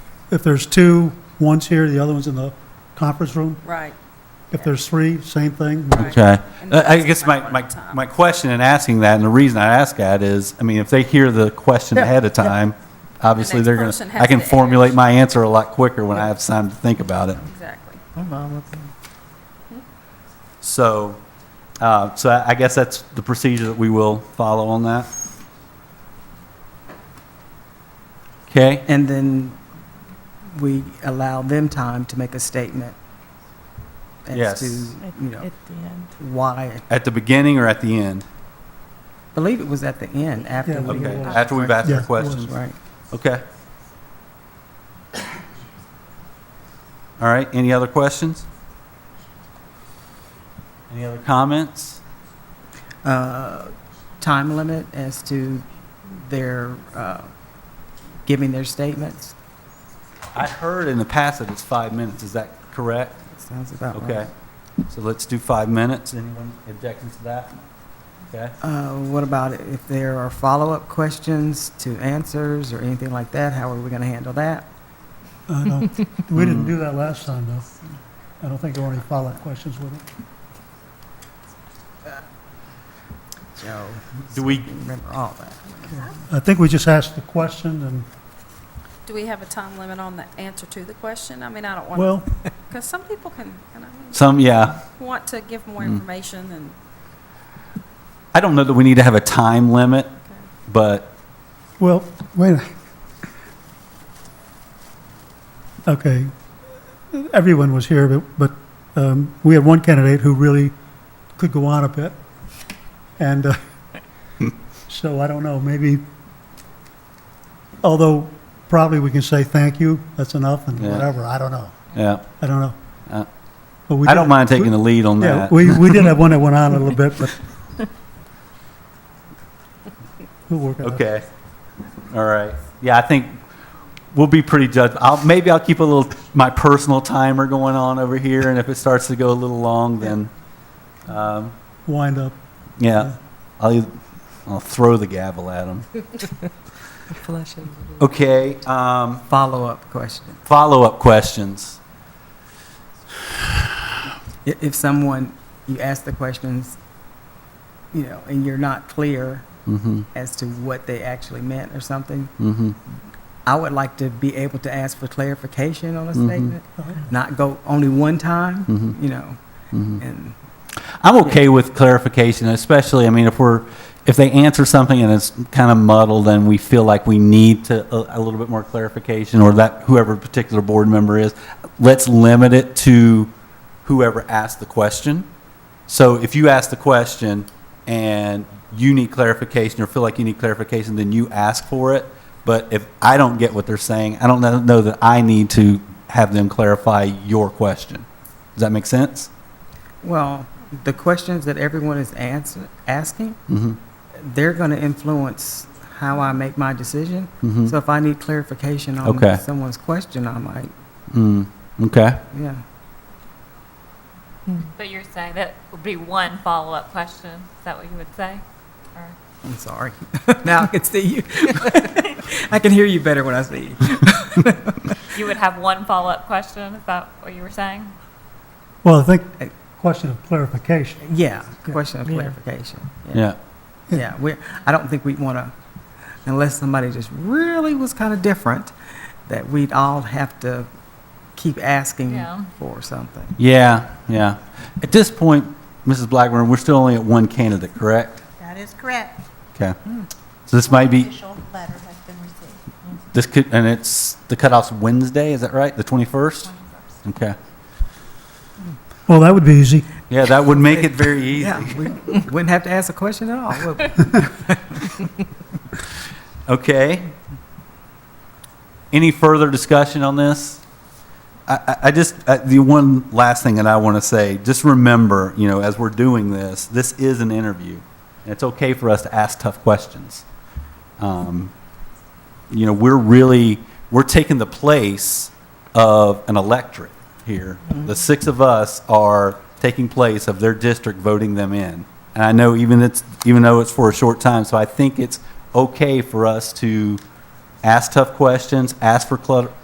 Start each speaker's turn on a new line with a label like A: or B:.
A: If there's two, one's here, the other one's in the conference room.
B: Right.
A: If there's three, same thing.
B: Right.
C: Okay.
B: And
C: Uh, I
B: that's
C: guess
B: my
C: my,
B: one
C: my,
B: time.
C: my question in asking that, and the reason I ask that is, I mean, if they hear the question
A: Yeah,
C: ahead of
A: yeah.
C: time, obviously
B: next
C: they're gonna,
B: person has
C: I can
B: to
C: formulate
B: ask.
C: my answer a lot quicker when I have time to think about it.
B: Exactly.
C: So, uh, so I I guess that's the procedure that we will follow on that. Okay,
D: And then we allow them time to make a statement
C: Yes.
D: as to,
E: At
D: you know,
E: at the end.
D: why.
C: at the beginning or at the end?
D: I believe it was at the end, after
A: Yeah,
D: we.
C: Okay,
A: was.
C: after we've asked
A: Yeah,
C: our
A: it was.
C: questions?
D: Right.
C: Okay. All right, any other questions? Any other comments?
D: Uh, Time limit as to their, uh, giving their statements.
C: I heard in the past that it's five minutes, is that correct?
D: Sounds about
A: Uh-huh.
D: right.
C: Okay, so let's do five minutes. Anyone objecting to that? Okay,
D: Uh, What about if there are follow-up questions to answers or anything like that? How are we going to handle that?
A: I don't- We didn't do that last time, though. I don't think there were any follow-up questions with it.
D: Joe,
C: do we,
D: remember all that.
A: I think we just asked the question and,
B: Do we have a time limit on the answer to the question? I mean, I don't want to,
A: well,
B: because some people can, and I mean,
C: some, yeah.
B: want to give more
C: Mm.
D: Hmm.
B: information and,
C: I don't know that we need to have a time limit,
B: okay.
C: but
A: well, wait. a- Okay, everyone was here, but, but um, we had one candidate who really could go on a bit. And uh, so I don't know, maybe, although probably we can say thank you, that's enough and
C: Yeah.
A: whatever, I don't know.
C: yeah,
A: I don't know.
C: Uh,
A: But we
C: I
A: did-
C: don't mind taking the lead on
A: Yeah,
C: that.
A: we, we did have one that went on a little bit, but we'll work it out.
C: Okay, all right. Yeah, I think we'll be pretty judged. I'll, maybe I'll keep a little, my personal timer going on over here, and if it starts to go a little long, then, um,
A: Wind up.
C: yeah, I'll, eith- I'll throw the gavel at them.
E: Flush it.
C: Okay, um,
D: Follow-up question.
C: follow-up questions.
D: I- If someone, you ask the questions, you know, and you're not clear
C: Mm-hmm,
D: as to what they actually meant or something,
C: mm-hmm.
D: I would like to be able to ask for clarification on a
C: Mhm.
D: statement, not go only one time,
C: Mhm.
D: you know,
C: Mhm.
D: and
C: I'm okay with clarification, especially, I mean, if we're, if they answer something and it's kind of muddled and we feel like we need to, uh, a, a little bit more clarification, or that, whoever particular board member is, let's limit it to whoever asked the question. So if you ask the question and you need clarification or feel like you need clarification, then you ask for it. But if I don't get what they're saying, I don't know- know that I need to have them clarify your question. Does that make sense?
D: Well, the questions that everyone is answer, asking,
C: Mm-hmm.
D: they're going to influence how I make my decision.
C: Mhm.
D: So if I need clarification on
C: Okay.
D: someone's question, I might,
C: Mm, okay.
D: yeah.
F: But you're saying that would be one follow-up question? Is that what you would say? Or
D: I'm sorry. now I can see you. I can hear you better when I see you.
F: you would have one follow-up question? Is that what you were saying?
A: Well, I think, uh, question of clarification.
D: Yeah, question of
E: Yeah.
D: clarification.
C: Yeah.
A: Yeah.
D: Yeah, we, I don't think we'd want to, unless somebody just really was kind of different, that we'd all have to keep asking
F: Yeah.
D: for something.
C: Yeah. Yeah. At this point, Mrs. Blackburn, we're still only at one candidate, correct?
G: That is correct.
C: Okay. So this might be,
G: Official letter has been received.
C: this could, and it's, the cutoff's Wednesday, is that right? The 21st? Okay.
A: Well, that would be easy.
C: Yeah, that would make it very easy.
D: Yeah, we wouldn't have to ask a question at all. would we?
C: Okay. Any further discussion on this? I, I- I just, uh, the one last thing that I want to say, just remember, you know, as we're doing this, this is an interview. And it's okay for us to ask tough questions. Um, You know, we're really, we're taking the place of an electorate here. The six of us are taking place of their district voting them in. And I know even it's, even though it's for a short time, so I think it's okay for us to ask tough questions, ask for clar-